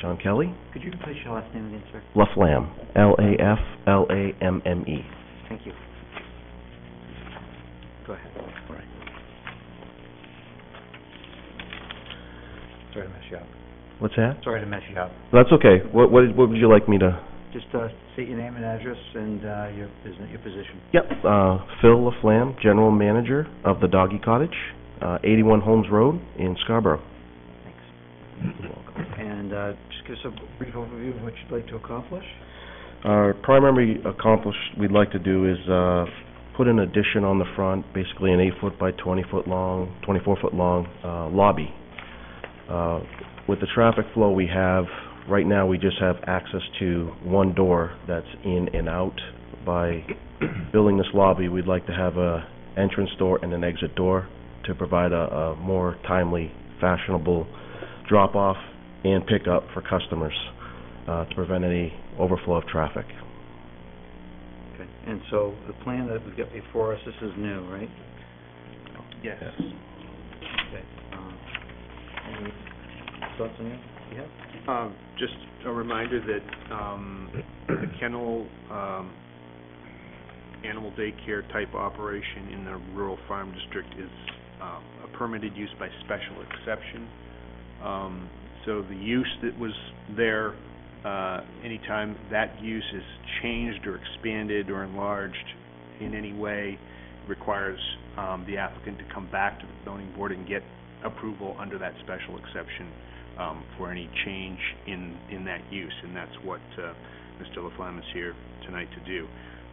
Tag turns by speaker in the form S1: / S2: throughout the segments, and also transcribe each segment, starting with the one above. S1: Sean Kelly,
S2: Could you repeat your last name again, sir?
S1: Laflamme, L-A-F-L-A-M-M-E.
S2: Thank you. Go ahead.
S1: All right.
S2: Sorry to mess you up.
S1: What's that?
S2: Sorry to mess you up.
S1: That's okay. What, what, what would you like me to?
S2: Just, uh, state your name and address and, uh, your business, your position.
S1: Yep, uh, Phil Laflamme, General Manager of the Doggy Cottage, uh, eighty-one Holmes Road in Scarborough.
S2: Thanks. And, uh, just give us a brief overview of what you'd like to accomplish.
S1: Our primary accomplish Uh, we'd like to do is, uh, put an addition on the front, basically an eight-foot by twenty-foot long, twenty-four-foot long, uh, lobby. Uh, with the traffic flow we have, right now, we just have access to one door that's in and out. By building this lobby, we'd like to have a entrance door and an exit door to provide a, a more timely, fashionable drop-off and pickup for customers, uh, to prevent any overflow of traffic.
S2: Okay. And so the plan that we've got before us, this is new, right?
S3: Yes.
S2: Okay. Um, Any thoughts on that? Yeah.
S3: Um, just a reminder that, um, the kennel, um, animal daycare type operation in the rural farm district is, um, a permitted use by special exception. Um, so the use that was there, uh, anytime that use is changed or expanded or enlarged in any way, requires, um, the applicant to come back to the zoning board and get approval under that special exception um, for any change in, in that use, and that's what uh, Mr. Laflamme is here tonight to do.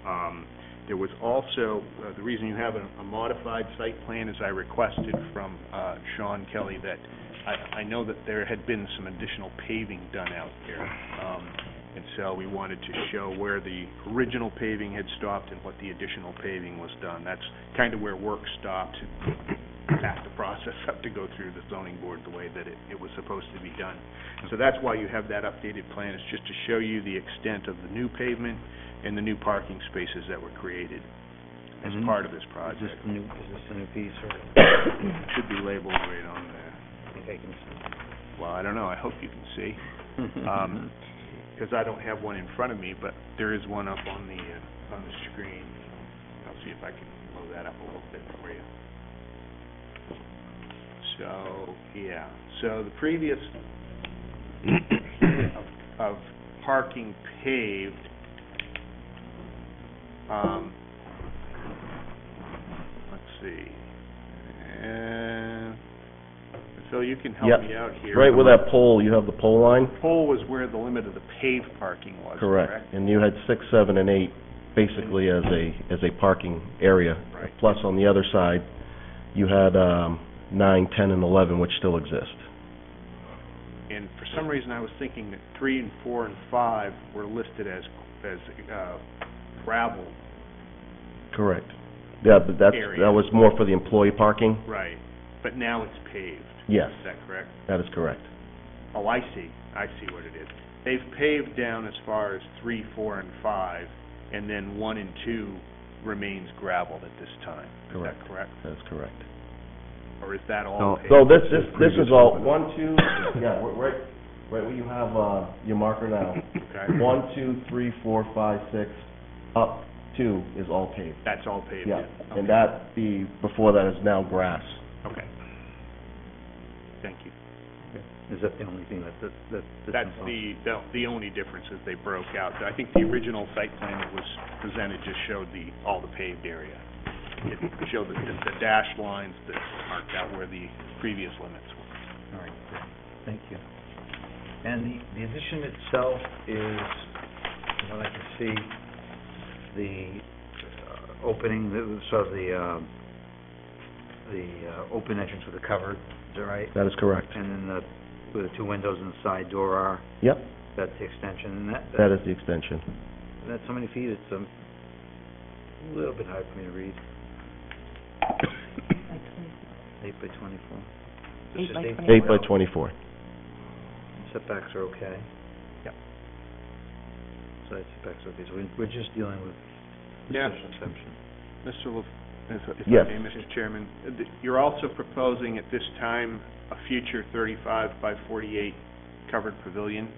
S3: Um, There was also, uh, the reason you have a a modified site plan is I requested from uh, Sean Kelly that, I, I know that there had been some additional paving done out there, um, and so we wanted to show where the original paving had stopped and what the additional paving was done. That's kind of where work stopped, back the process up to go through the zoning board the way that it, it was supposed to be done. So that's why you have that updated plan, is just to show you the extent of the new pavement and the new parking spaces that were created as
S2: Mhm.
S3: part of this
S2: Is this
S3: project.
S2: the new, is this the new piece or?
S3: Should be labeled right on there.
S2: Okay, can
S3: Well, I don't know, I hope you can see,
S2: see.
S3: Um, because I don't have one in front of me, but there is one up on the, uh, on the screen. I'll see if I can blow that up a little bit for you. So, yeah, so the previous of- of parking paved, um, let's see, and, Phil, you can help
S1: Yep.
S3: me out here.
S1: Right where that pole, you have the pole line?
S3: Pole was where the limit of the paved parking was, correct?
S1: Correct. And you had six, seven, and eight basically as a, as a parking area.
S3: Right.
S1: Plus, on the other side, you had um, nine, 10, and 11, which still exist.
S3: And for some reason, I was thinking that three and four and five were listed as, as uh, gravel.
S1: Correct. Yeah, but that's,
S3: Area.
S1: that was more for the employee parking?
S3: Right. But now it's paved,
S1: Yes,
S3: is that correct?
S1: that is correct.
S3: Oh, I see, I see what it is. They've paved down as far as three, four, and five, and then one and two remains gravel at this time. Is
S1: Correct.
S3: that correct?
S1: That is correct.
S3: Or is that all
S2: No.
S3: paved?
S1: So this, this, this is all, one, two, yeah, we're- right, right where you have uh, your marker now.
S3: Okay.
S1: One, two, three, four, five, six, up two is all paved.
S3: That's all paved?
S1: Yeah,
S3: Okay.
S1: and that, the, before that is now grass.
S3: Okay. Thank you.
S2: Is that the only thing that, that, that?
S3: That's the, the- the only difference is they broke out. I think the original site plan that was presented just showed the, all the paved area. It showed the, the dashed lines that marked out where the previous limits were.
S2: All right, great. thank you. And the, the addition itself is, from what I can see, the uh, opening, the- sort of the, um, the uh, open entrance with the cover, is that right?
S1: That is correct.
S2: And then the, where the two windows and the side door are,
S1: Yep,
S2: that's the extension, and that,
S1: that is the extension.
S2: that's how many feet? It's um, a little bit hard for me to read. Eight by twenty-four. It's
S4: Eight
S2: just
S4: by
S1: Eight by
S2: Well,
S1: twenty-four.
S2: Setbacks are okay.
S3: Yep.
S2: Side setbacks are okay, so we- we're just dealing with
S3: Yeah.
S2: special exception.
S3: Mr. Lef, if I- if I
S1: Yes.
S3: may, Mr. Chairman, uh, th- you're also proposing at this time a future thirty-five by forty-eight covered pavilion?